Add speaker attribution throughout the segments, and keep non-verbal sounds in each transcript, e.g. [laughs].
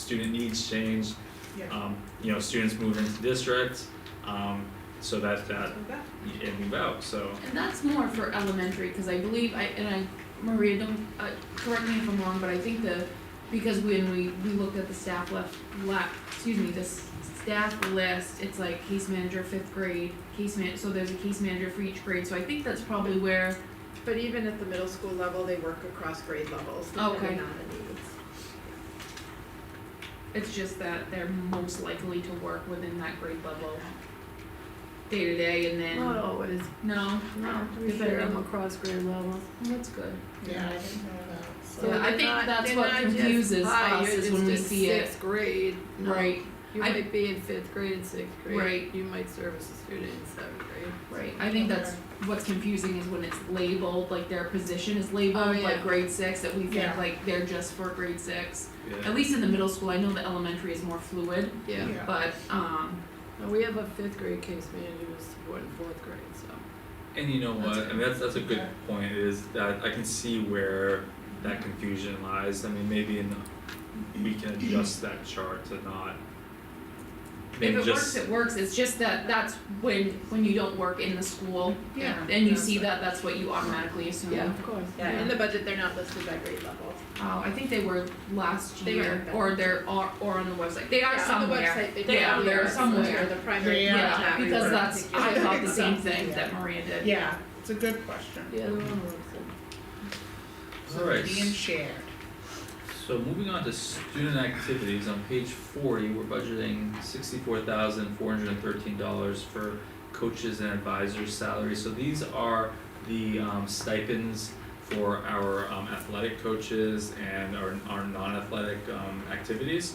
Speaker 1: student needs change, um, you know, students move into district, um, so that, that, and move out, so.
Speaker 2: And that's more for elementary, because I believe, I, and I, Maria, don't, uh, correct me if I'm wrong, but I think the, because when we, we looked at the staff left, la, excuse me, the s- staff list, it's like case manager, fifth grade, case man, so there's a case manager for each grade, so I think that's probably where,
Speaker 3: But even at the middle school level, they work across grade levels,
Speaker 2: Okay.
Speaker 4: Oh,
Speaker 3: depending on the needs.
Speaker 2: it's just that they're most likely to work within that grade level day to day, and
Speaker 4: Not
Speaker 2: then,
Speaker 4: always.
Speaker 2: no,
Speaker 4: No, we
Speaker 2: Depending
Speaker 4: share them
Speaker 2: on-
Speaker 4: across grade levels.
Speaker 2: that's good.
Speaker 3: Yeah, I
Speaker 5: didn't know that,
Speaker 4: So
Speaker 2: Yeah, I
Speaker 4: they're
Speaker 2: think
Speaker 4: not-
Speaker 2: that's
Speaker 4: they're
Speaker 2: what
Speaker 4: not just,
Speaker 2: confuses
Speaker 4: "Hi,
Speaker 2: us
Speaker 4: you're
Speaker 2: is
Speaker 4: just
Speaker 2: when we
Speaker 4: in
Speaker 2: see it."
Speaker 4: Sixth grade. No,
Speaker 2: Right,
Speaker 4: You
Speaker 2: I-
Speaker 4: might be in fifth grade and sixth grade.
Speaker 2: Right.
Speaker 4: You might service a student in seventh grade.
Speaker 2: right, I think that's what's confusing is when it's labeled, like their position is labeled
Speaker 4: Oh, yeah.
Speaker 2: like grade six, that we think
Speaker 5: Yeah.
Speaker 2: like they're just for grade six.
Speaker 1: Yeah.
Speaker 2: At least in the middle school, I know the elementary is more fluid,
Speaker 4: Yeah.
Speaker 2: but um,
Speaker 4: Now, we have a fifth grade case manager who's supporting fourth grade, so.
Speaker 1: And you know
Speaker 2: That's
Speaker 1: what, I mean, that's, that's a good
Speaker 5: Yeah.
Speaker 1: point, is that I can see where that confusion lies, I mean, maybe in, the- we can adjust that chart to not.
Speaker 2: if
Speaker 1: maybe
Speaker 2: it works,
Speaker 1: just-
Speaker 2: it works, it's just that that's when, when you don't work in the school.
Speaker 3: Yeah.
Speaker 2: And you see that, that's what you automatically assume.
Speaker 4: Yeah, of course.
Speaker 3: Yeah,
Speaker 2: Yeah.
Speaker 3: in the budget, they're not listed by grade level.
Speaker 2: Oh, I think they were last
Speaker 3: They
Speaker 2: year,
Speaker 3: were back.
Speaker 2: or they're, or, or on the website, they are
Speaker 3: Yeah,
Speaker 2: somewhere.
Speaker 3: On the website, they
Speaker 2: They are,
Speaker 3: probably
Speaker 2: they're
Speaker 3: are, so
Speaker 2: somewhere.
Speaker 3: they're the primary
Speaker 5: Yeah.
Speaker 2: Yeah,
Speaker 3: contact for
Speaker 2: because that's, I
Speaker 3: particular
Speaker 2: thought the same
Speaker 3: stuff.
Speaker 2: thing
Speaker 5: Yeah.
Speaker 2: that Maria did.
Speaker 5: Yeah, it's a good question.
Speaker 4: Yeah, the one works in.
Speaker 1: Alright,
Speaker 5: Being shared.
Speaker 1: So moving on to student activities, on page forty, we're budgeting sixty-four thousand four hundred and thirteen dollars for coaches and advisors' salaries, so these are the um stipends for our um athletic coaches and our our non-athletic um activities.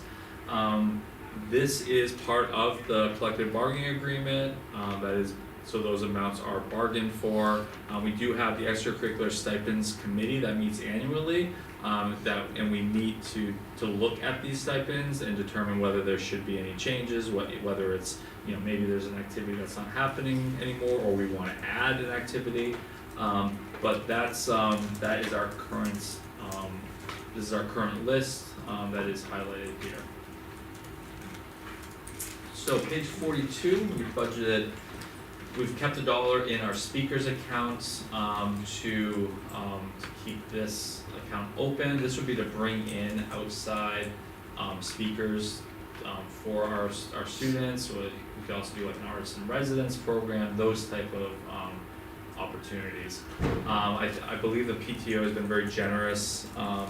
Speaker 1: Um this is part of the collective bargaining agreement, um that is, so those amounts are bargained for. Um we do have the extracurricular stipends committee that meets annually, um that and we meet to to look at these stipends and determine whether there should be any changes, what whether it's you know maybe there's an activity that's not happening anymore or we want to add an activity. Um but that's um that is our current um this is our current list um that is highlighted here. So page forty-two, we budgeted, we've kept a dollar in our speakers accounts um to um to keep this account open. This would be to bring in outside um speakers um for our s- our students, or we could also do like an artist in residence program, those type of um opportunities. Um I I believe the PTO has been very generous um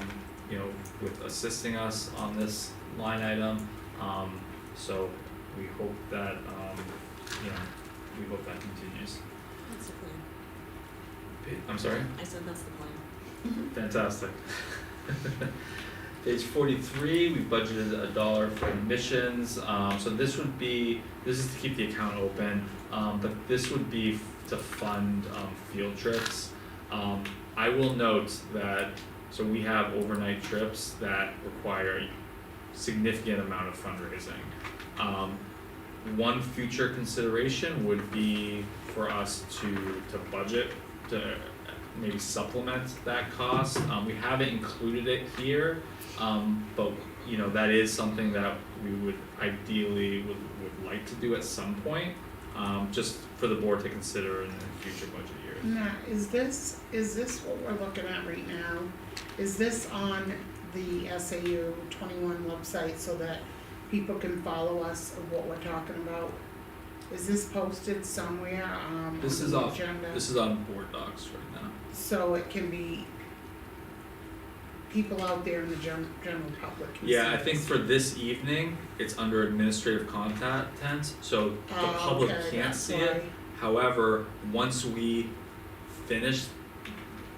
Speaker 1: you know with assisting us on this line item. Um so we hope that um you know we hope that continues.
Speaker 6: That's the plan.
Speaker 1: Pa- I'm sorry?
Speaker 6: I said that's the plan.
Speaker 1: Fantastic. [laughs] Page forty-three, we budgeted a dollar for admissions, um, so this would be, this is to keep the account open, um, but this would be f- to fund, um, field trips. Um, I will note that, so we have overnight trips that require significant amount of fundraising. Um, one future consideration would be for us to, to budget, to maybe supplement that cost. Um, we haven't included it here, um, but you know that is something that we would ideally would, would like to do at some point, um, just for the board to consider in the future budget years.
Speaker 5: Now, is this, is this what we're looking at right now? Is this on the SAU twenty-one website so that people can follow us of what we're talking about? Is this posted somewhere, um, on
Speaker 1: This is
Speaker 5: the
Speaker 1: off-
Speaker 5: agenda?
Speaker 1: This is on board docs right now.
Speaker 5: So it can be, people out there in the gen- general public can see
Speaker 1: Yeah, I think
Speaker 5: this.
Speaker 1: for this evening, it's under administrative content, so the
Speaker 5: Oh,
Speaker 1: public
Speaker 5: okay,
Speaker 1: can't
Speaker 5: that's
Speaker 1: see it.
Speaker 5: why.
Speaker 1: However, once we finish,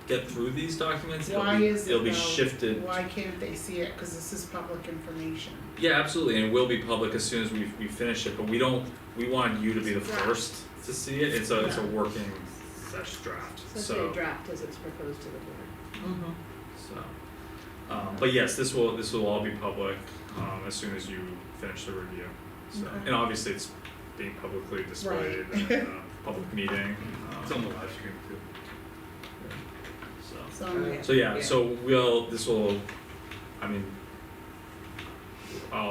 Speaker 1: get through these documents, it'll
Speaker 5: Why
Speaker 1: be,
Speaker 5: is it
Speaker 1: it'll be
Speaker 5: though?
Speaker 1: shifted.
Speaker 5: Why can't they see it? Cause this is public information.
Speaker 1: Yeah, absolutely, and it will be public as soon as we, we finish it, but we don't, we want you to be the
Speaker 3: Draft.
Speaker 1: first to see it, it's a, it's a
Speaker 5: Yeah.
Speaker 1: working session draft, so.
Speaker 3: So it's a draft as it's proposed to the board.
Speaker 6: Mm-hmm.
Speaker 1: So, um, but yes, this will, this will all be public, um, as soon as you finish the review, so,
Speaker 5: Okay.
Speaker 1: and obviously it's being publicly displayed in a public meeting, um. It's on the live stream too. So.
Speaker 5: So,
Speaker 1: So yeah,
Speaker 3: Yeah.
Speaker 1: so we'll, this will, I mean,